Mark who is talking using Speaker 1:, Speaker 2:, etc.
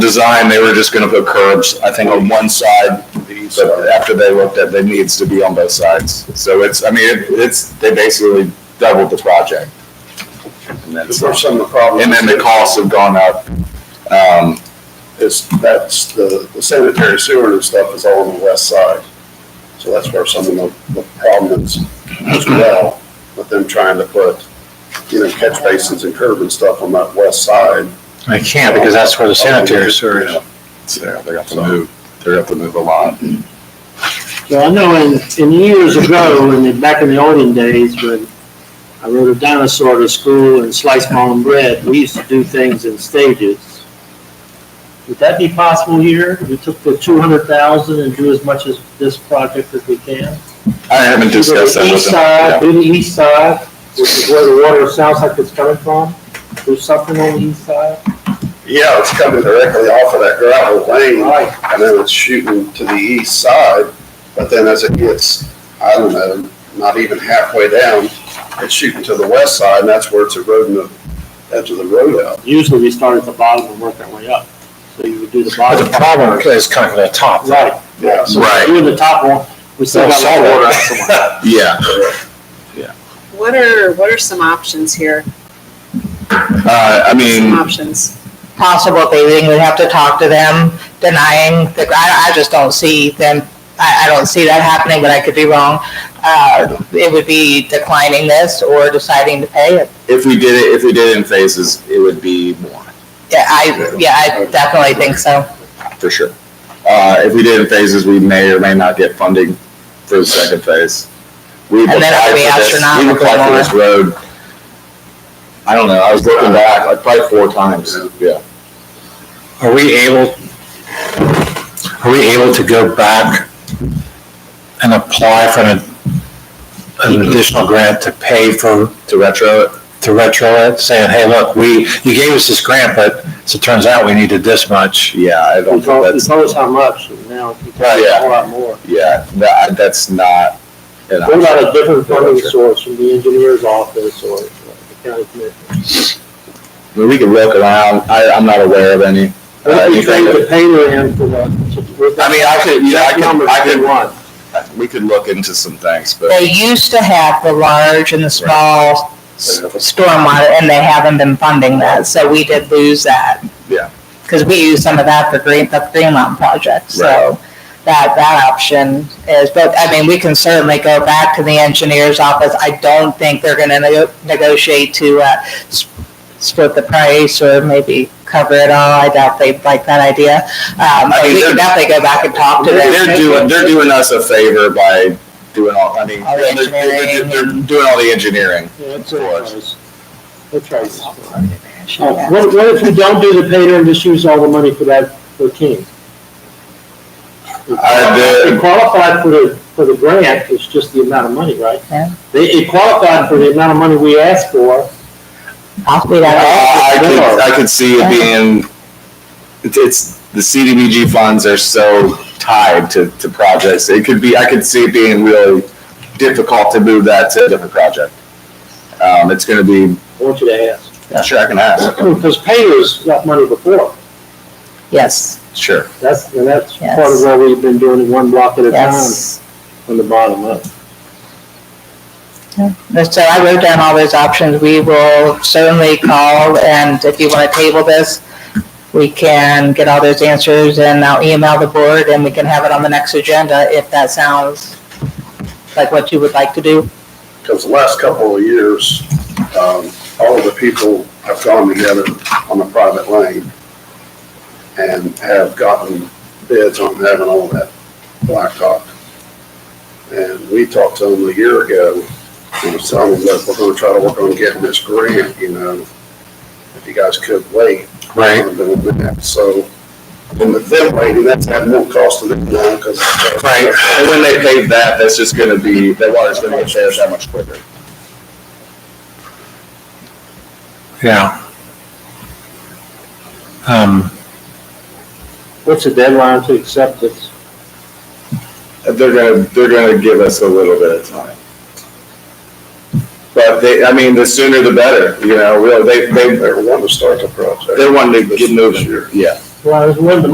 Speaker 1: design, they were just gonna put curbs, I think on one side, but after they looked at, it needs to be on both sides. So it's, I mean, it- it's, they basically doubled the project. And
Speaker 2: The
Speaker 1: that's,
Speaker 2: first time the problem.
Speaker 1: and then the costs have gone up. Um,
Speaker 2: Is, that's the, the sanitary sewer and stuff is all on the west side. So that's where some of the, the problem is as well, with them trying to put, you know, catch basins and curb and stuff on that west side.
Speaker 3: I can't because that's where the sanitary sewer is.
Speaker 1: so they're gonna have to move, they're gonna have to move a lot.
Speaker 4: So I know in, in years ago, in the, back in the olden days, when I rode a dinosaur to school and sliced my own bread, we used to do things in stages. Would that be possible here? We took the two hundred thousand and do as much as this project as we can?
Speaker 1: I haven't
Speaker 4: Do the
Speaker 1: discussed that with
Speaker 4: east
Speaker 1: them.
Speaker 4: side,
Speaker 1: Yeah.
Speaker 4: Do the east side, which is where the water sounds like it's coming from? Do something on the east side?
Speaker 2: Yeah, it's coming directly off of that gravel lane.
Speaker 4: Right.
Speaker 2: and then it's shooting to the east side, but then as it gets, I don't know, not even halfway down, it's shooting to the west side, and that's where it's eroding the edge of the road out.
Speaker 4: Usually we start at the bottom and work our way up. So you would do the
Speaker 3: But
Speaker 4: bottom.
Speaker 3: the problem is coming from the top.
Speaker 4: Right.
Speaker 2: Yeah, so
Speaker 1: Right.
Speaker 4: Doing the top one, we still got.
Speaker 3: Salt water.
Speaker 1: Yeah.
Speaker 5: What are, what are some options here?
Speaker 1: Uh, I
Speaker 5: Some
Speaker 1: mean,
Speaker 5: options.
Speaker 6: possible paving, we'd have to talk to them denying, the I, I just don't see them, I, I don't see that happening, but I could be wrong. Uh, it would be declining this or deciding to pay it.
Speaker 1: if we did it, if we did it in phases, it would be more,
Speaker 6: Yeah, I, yeah, I definitely think so.
Speaker 1: for sure. Uh, if we did it in phases, we may or may not get funding for the second phase. We've
Speaker 6: And then it'll
Speaker 1: applied
Speaker 6: be
Speaker 1: for this-
Speaker 6: astronomical
Speaker 1: We've applied for this road, I don't know, I was looking back, like probably four times, yeah.
Speaker 3: Are we able, are we able to go back and apply for an, an additional grant to pay for,
Speaker 1: To retro it,
Speaker 3: to retro it, saying, hey, look, we, you gave us this grant, but as it turns out, we needed this much.
Speaker 1: yeah, I don't
Speaker 4: We
Speaker 1: think
Speaker 4: told, we
Speaker 1: that's,
Speaker 4: told us how much, and now we tell
Speaker 1: Right,
Speaker 4: us a
Speaker 1: yeah.
Speaker 4: whole lot more.
Speaker 1: yeah, that, that's not. an
Speaker 4: What about a
Speaker 1: option.
Speaker 4: different funding source from the engineer's office or the county
Speaker 1: Uh,
Speaker 4: commission?
Speaker 1: I mean, We could look around, I, I'm not aware of any. uh,
Speaker 4: What do you
Speaker 1: anything
Speaker 4: think
Speaker 1: that-
Speaker 4: the payer in for the?
Speaker 1: I mean, I could, yeah, I could, I could,
Speaker 4: one.
Speaker 1: we could look into some things, but
Speaker 6: They used to have the large and the small s- stormwater, and they haven't been funding that, so we did lose that.
Speaker 1: Yeah.
Speaker 6: Because we used some of that for Green, the Green Mountain project, so that, that option is, but, I mean, we can certainly go back to the engineer's office. I don't think they're gonna nego- negotiate to, uh, s- split the price or maybe cover it all. I doubt they'd like that idea. Um,
Speaker 1: I
Speaker 6: but
Speaker 1: mean,
Speaker 6: we can
Speaker 1: they're-
Speaker 6: definitely go back and talk to them.
Speaker 1: they're doing, they're doing us a favor by doing all, I mean,
Speaker 6: All the
Speaker 1: they're, they're-
Speaker 6: engineering
Speaker 1: they're
Speaker 6: and-
Speaker 1: doing all the engineering.
Speaker 4: Yeah, that's
Speaker 1: Of
Speaker 4: right.
Speaker 1: course.
Speaker 4: That's right.
Speaker 6: Yeah.
Speaker 4: Oh, What, what if we don't do the payer and just use all the money for that, for King?
Speaker 1: I did-
Speaker 4: It qualified for the, for the grant, it's just the amount of money, right?
Speaker 6: Yeah.
Speaker 4: They, it qualified for the amount of money we asked for,
Speaker 6: Possibly
Speaker 1: I,
Speaker 6: that.
Speaker 1: I could, I could see it being, it's, it's, the CDBG funds are so tied to, to projects. It could be, I could see it being really difficult to move that to a different project. Um, it's gonna be,
Speaker 4: I want you to ask.
Speaker 1: sure, I can ask,
Speaker 4: Because payers got money before,
Speaker 6: Yes,
Speaker 1: sure.
Speaker 4: that's, and that's
Speaker 6: Yes.
Speaker 4: part of why we've been doing it one block at a time,
Speaker 6: yes.
Speaker 4: from the bottom up.
Speaker 6: So I wrote down all those options. We will certainly call, and if you want to table this, we can get all those answers, and I'll email the board, and we can have it on the next agenda if that sounds like what you would like to do.
Speaker 2: Because the last couple of years, um, all of the people have gone together on a private lane and have gotten bids on having all that blacktop. And we talked to them a year ago, and was telling them, look, we're gonna try to work on getting this grant, you know, if you guys could wait. on doing that. So, and with them waiting, that's had more cost to them now, because.
Speaker 3: Right.
Speaker 1: And when they pave that, that's just gonna be, that water's gonna get there that much quicker.
Speaker 3: Yeah. Um,
Speaker 4: What's the deadline to accept this?
Speaker 1: They're gonna, they're gonna give us a little bit of time. But they, I mean, the sooner the better, you know, really, they, they,
Speaker 2: They were wanting to start the project.
Speaker 1: they wanted to get
Speaker 2: This
Speaker 1: moving.
Speaker 2: year.
Speaker 1: Yeah.
Speaker 4: Well, there's one, the